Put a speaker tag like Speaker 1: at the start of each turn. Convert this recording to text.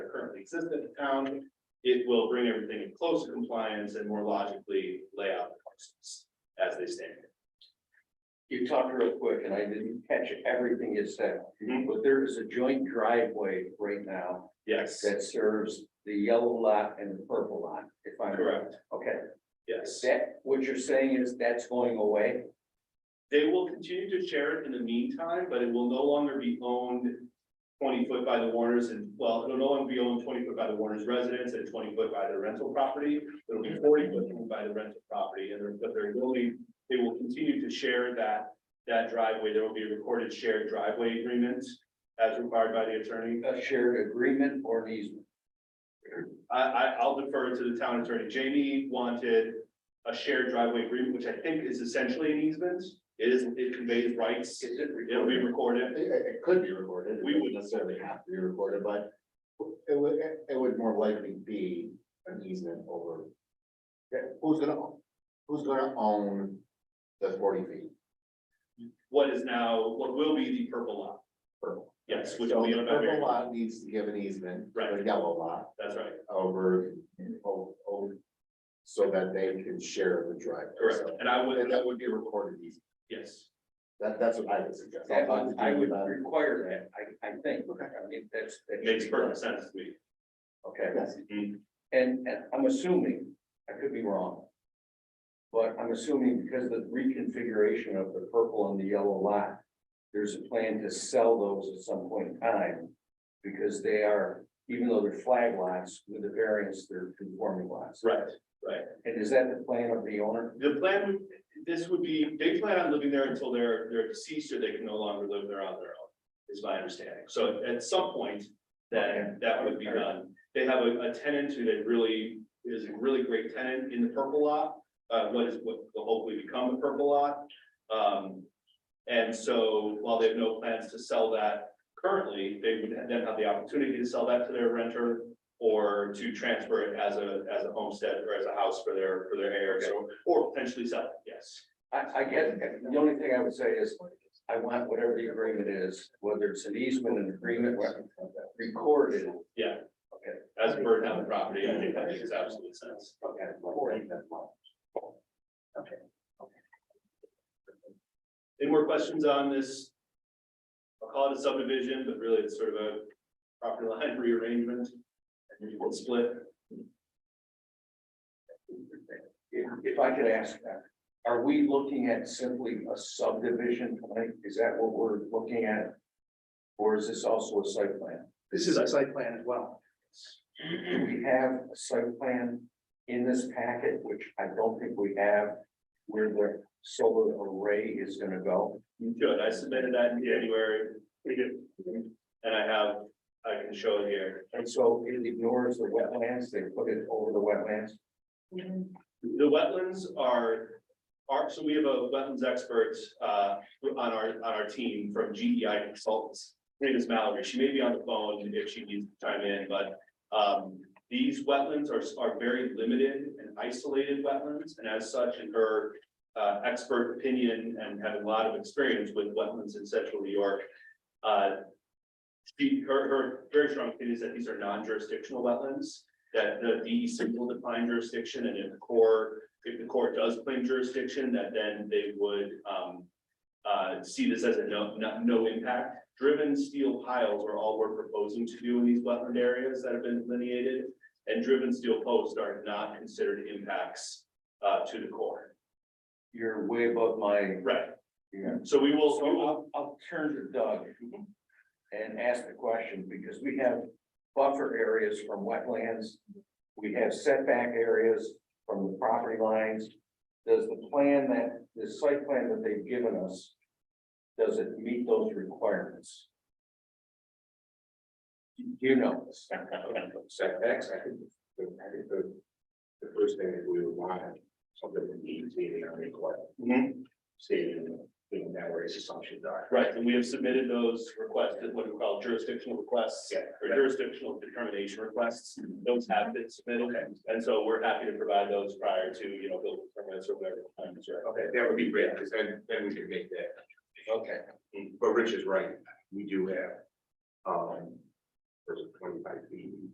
Speaker 1: consistent in town, it will bring everything in closer compliance and more logically lay out the parcels as they stand.
Speaker 2: You talked real quick and I didn't catch everything you said,
Speaker 1: Mhm.
Speaker 2: but there is a joint driveway right now
Speaker 1: Yes,
Speaker 2: that serves the yellow lot and the purple lot, if I'm.
Speaker 1: correct,
Speaker 2: Okay,
Speaker 1: yes.
Speaker 2: that, what you're saying is that's going away?
Speaker 1: They will continue to share it in the meantime, but it will no longer be owned twenty foot by the Warners and, well, it'll no longer be owned twenty foot by the Warners residents and twenty foot by the rental property. It'll be forty foot owned by the rental property and there, but there will be, they will continue to share that, that driveway. There will be a recorded shared driveway agreement as required by the attorney.
Speaker 2: A shared agreement or an easement?
Speaker 1: I, I, I'll defer to the town attorney. Jamie wanted a shared driveway agreement, which I think is essentially an easement. It is, it conveys rights.
Speaker 2: Is it
Speaker 1: It'll be recorded.
Speaker 2: recorded?
Speaker 3: It, it- it could be recorded. It
Speaker 1: We
Speaker 3: wouldn't necessarily have to be recorded, but it would, it- it would more likely be an easement over. Yeah, who's gonna, own- who's gonna own the forty feet?
Speaker 1: what is now, what will be the purple lot.
Speaker 3: purple?
Speaker 1: Yes,
Speaker 3: So
Speaker 1: which
Speaker 3: the
Speaker 1: will be owned by
Speaker 3: purple
Speaker 1: Mary.
Speaker 3: lot needs to give an easement. to The
Speaker 1: Right.
Speaker 3: yellow lot
Speaker 1: That's right.
Speaker 3: over, o- o- so that they can share the driveway.
Speaker 1: Correct.
Speaker 3: So
Speaker 1: And I
Speaker 3: That
Speaker 1: would,
Speaker 3: that would be recorded easement.
Speaker 1: yes,
Speaker 3: That, that's what I would suggest.
Speaker 2: That would- uh, I would require that, I, I think, I mean, that's. that
Speaker 1: makes
Speaker 2: should be done.
Speaker 1: perfect sense to me.
Speaker 2: Okay.
Speaker 3: Yes.
Speaker 2: And, and I'm assuming, I could be wrong. But I'm assuming because of the reconfiguration of the purple and the yellow lot, there's a plan to sell those at some point in time. Because they are, even though they're flag lots, with the variance, they're conforming lots.
Speaker 1: Right.
Speaker 2: And is that the plan of the owner?
Speaker 1: The plan, would this would be, they plan on living there until they're, they're deceased or they can no longer live there on their own, is my understanding. So at some point, then that would be done. They have a, a tenant who they really, is a really great tenant in the purple lot, uh, what is, what will hopefully become the purple lot. Um, and so while they have no plans to sell that currently, they would then have the opportunity to sell that to their renter or to transfer it as a, as a homestead or as a house for their, for their heirs or, or potentially sell it, yes.
Speaker 2: I, I get, it. the only thing I would say is, I want whatever the agreement is, whether it's an easement, an agreement, recorded.
Speaker 1: Yeah.
Speaker 2: Okay.
Speaker 1: As per town property, I think that makes absolute sense.
Speaker 2: Okay.
Speaker 1: Any more questions on this? I'll call it a subdivision, but really it's sort of a property line rearrangement. And you will split.
Speaker 2: If, if I could ask that, are we looking at simply a subdivision plan? Is that what we're looking at? Or is this also a site plan?
Speaker 4: This is a site plan as well.
Speaker 2: Do we have a site plan in this packet, which I don't think we have, where the solar array is gonna go?
Speaker 1: You could, I submitted that in January. We did. And I have, I can show it here.
Speaker 2: And so it ignores the wetlands, they put it over the wetlands.
Speaker 1: The wetlands are, are, so we have a wetlands expert, uh, on our, on our team from GEI Consultants. Her name is Mallory. She may be on the phone if she needs to chime in, but, um, these wetlands are, are very limited and isolated wetlands. And as such, in her, uh, expert opinion and having a lot of experience with wetlands in central New York, uh, she, her, her very strong opinion is that these are non-jurisdictional wetlands that the DEC will define jurisdiction, and if the core, if the court does claim jurisdiction, that then they would, um, uh, see this as a no, no, no impact. Driven steel piles are all we're proposing to do in these wetland areas that have been delineated, and driven steel posts are not considered impacts, uh, to the core.
Speaker 2: You're way above my,
Speaker 1: Right,
Speaker 2: yeah.
Speaker 1: so we will, we
Speaker 2: So
Speaker 1: will,
Speaker 2: I'll, I'll turn to Doug and ask the question, because we have buffer areas from wetlands. We have setback areas from the property lines. Does the plan that, the site plan that they've given us, does it meet those requirements? You know. this.
Speaker 3: setbacks, I think, the, I think the, the first thing that we would want, something that needs to be on record,
Speaker 1: Mhm,
Speaker 3: stating, you know, that where his assumptions are.
Speaker 1: right, and we have submitted those requests, what we call jurisdictional requests.
Speaker 3: Yeah.
Speaker 1: or jurisdictional determination requests, those have been submitted, and so we're happy to provide those prior to, you know, building permits or whatever. requirements are.
Speaker 3: Okay, that would be great, because then, then we can make that, Mm,
Speaker 2: Okay,
Speaker 3: but Rich is right, we do have, um, there's twenty-five feet